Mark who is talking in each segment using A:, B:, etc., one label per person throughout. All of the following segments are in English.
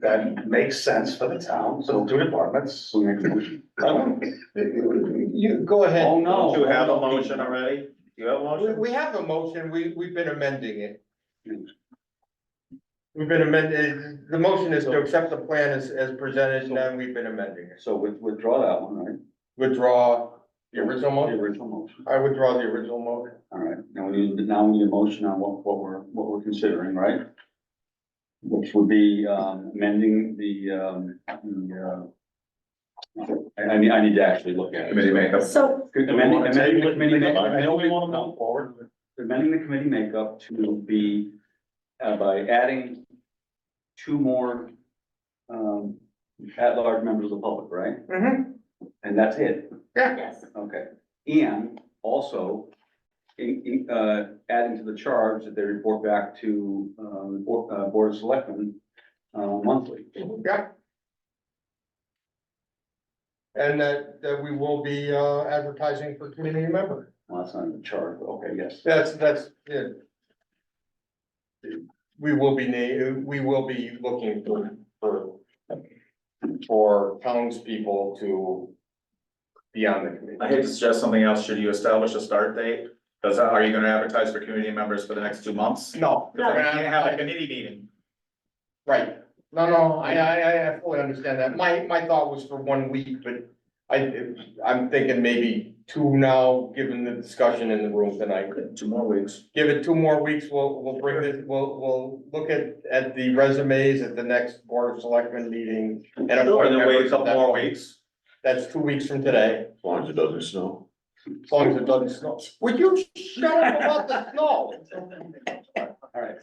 A: that makes sense for the town, so two departments.
B: So make a motion. Um,
C: You, go ahead.
B: Oh, no.
D: Do you have a motion already? Do you have a
C: We,
D: motion?
C: we have a motion, we, we've been amending it. We've been amending, the motion is to accept the plan as, as presented, and then we've been amending it.
B: So with- withdraw that one, right?
C: Withdraw the original
B: The
C: motion?
B: original motion.
C: I withdraw the original motion.
B: All right, now we need, now we need a motion on what, what we're, what we're considering, right? Which would be, um, amending the, um, the, uh, I, I need, I need to actually look at it.
E: Committee makeup.
F: So,
B: Amending, amending the committee makeup.
A: I know we wanna move forward, but
B: amending the committee makeup to be, uh, by adding two more, um, at-large members of the public, right?
C: Mhm.
B: And that's it,
F: yes,
B: okay. And also, in, in, uh, adding to the charge that they report back to, um, Bo- uh, Board of Selectmen, uh, monthly.
C: Yep. And that, that we will be, uh, advertising for community member.
B: Well, that's not in the charge, but okay, yes.
C: That's, that's, yeah. We will be, na- we will be looking for, for, for townspeople to be on the
D: I
C: committee.
D: hate to suggest something else. Should you establish a start date? Does, that- are you gonna advertise for community members for the next two months?
C: No.
D: Cause then we can't have a committee meeting.
C: Right, no, no, I, I, I fully understand that, my, my thought was for one week, but I, I'm thinking maybe two now, given the discussion in the room tonight.
D: Two more weeks.
C: Give it two more weeks, we'll, we'll bring this, we'll, we'll look at, at the resumes at the next Board of Selectmen meeting. And
D: Or
C: appoint
D: then wait a
C: members at
D: couple
C: that
D: more
C: point.
D: weeks.
C: That's two weeks from today,
E: As long as it doesn't snow.
C: as long as it doesn't snow. Would you shut up about the snow?
B: All right,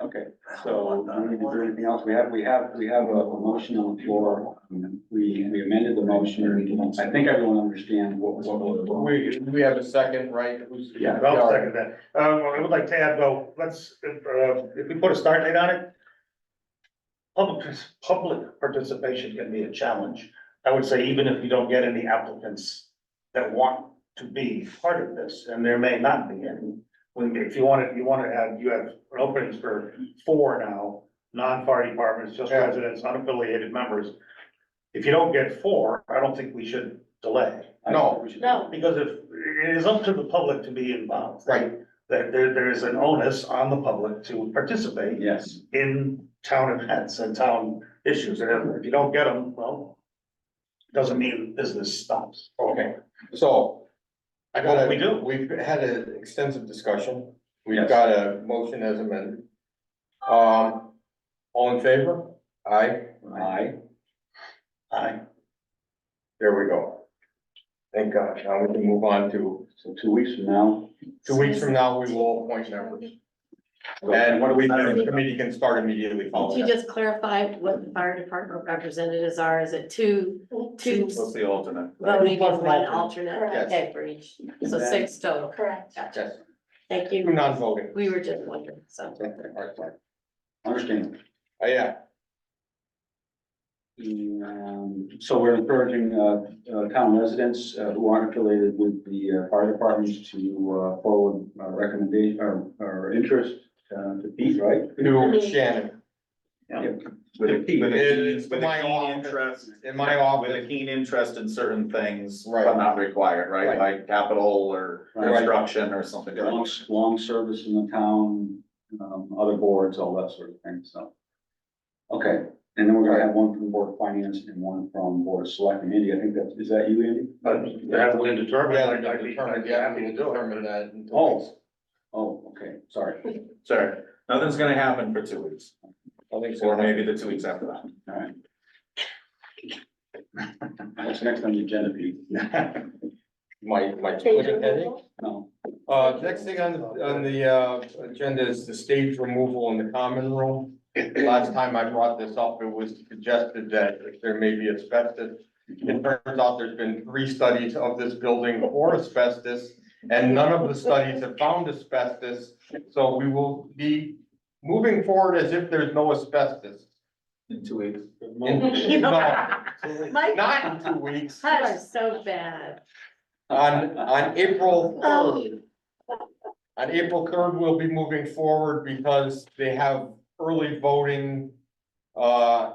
B: okay, so do we need to do anything else? We have, we have, we have a a motion on the floor. We, we amended the motion. I think everyone understands what was.
C: We, we have a second, right? Who's-
B: Yeah,
A: I'll second that. Um, I would like to add though, let's, uh, if we put a start date on it. Public, public participation can be a challenge. I would say even if you don't get any applicants that want to be part of this, and there may not be any. When, if you want it, you want to add, you have openings for four now, non-party departments, just
C: Yeah.
A: residents, unaffiliated members. If you don't get four, I don't think we should delay.
C: No,
F: no,
A: Because if, it is up to the public to be involved.
C: right,
A: There, there, there is an onus on the public to participate
B: Yes,
A: in town events and town issues, and if you don't get them, well. Doesn't mean business stops.
C: okay, so. I gotta-
A: Well, we do.
C: We've had an extensive discussion, we've
B: Yes.
C: got a motion as amended. Um, all in favor? Aye.
B: aye.
A: I,
C: There we go. Thank God, now we can move on to,
B: So two weeks from now.
C: two weeks from now, we will appoint members. And
B: And
C: what do we, the committee can start immediately
F: could
C: following
F: you
C: that.
F: just clarify what the fire department representatives are, is it two, two
D: What's the alternate?
F: voting
C: Plus
F: and one
C: alternate.
F: alternate?
C: Yes.
F: Okay, for each, so six total,
G: Correct.
F: gotcha,
C: Yes,
F: thank
C: Two
F: you,
C: non-voting.
F: we were just wondering, so.
C: Okay, all right, fine.
B: understand.
C: Oh, yeah,
B: Um, so we're encouraging, uh, uh, town residents uh, who aren't affiliated with the uh, fire departments to, uh, forward uh, recommendation, or, or interest, uh, to Pete, right?
C: new Shannon,
D: With a keen, with a
C: It's
D: keen- with a
C: my
D: keen
C: office.
D: interest.
C: in my
D: With a
C: office,
D: keen interest in certain things,
C: Right.
D: but not required,
C: Right.
D: right? Like capital or
B: Right.
D: construction or something. like that.
B: long, long service in the town, um, other boards, all that sort of thing, so. Okay, and then we're gonna have one from Board of Finance and one from Board of Selectmen. Andy, I think that, is that you, Andy?
A: but that would determine.
C: yeah,
A: I'd
C: we
A: be- I'd
C: determined,
A: be
C: yeah,
A: happy
C: we
A: to do it.
C: determined that. in two
B: Oh.
C: weeks.
B: Oh, okay, sorry.
D: Sorry, nothing's gonna happen for two weeks,
C: I think so.
D: or maybe the two weeks after that.
B: All right. What's next on the agenda, Pete?
C: My, my.
G: Change
C: Twitter heading.
G: removal?
B: No,
C: Uh, next thing on, on the, uh, agenda is the stage removal in the common room. Last time I brought this up, it was suggested that if there may be asbestos. It turns out there's been three studies of this building for asbestos, and none of the studies have found asbestos. So we will be moving forward as if there's no asbestos.
D: In two weeks.
C: In- no, Not in two weeks,
F: You are so bad.
C: on, on April third.
F: Oh,
C: On April third, we'll be moving forward because they have early voting. Uh,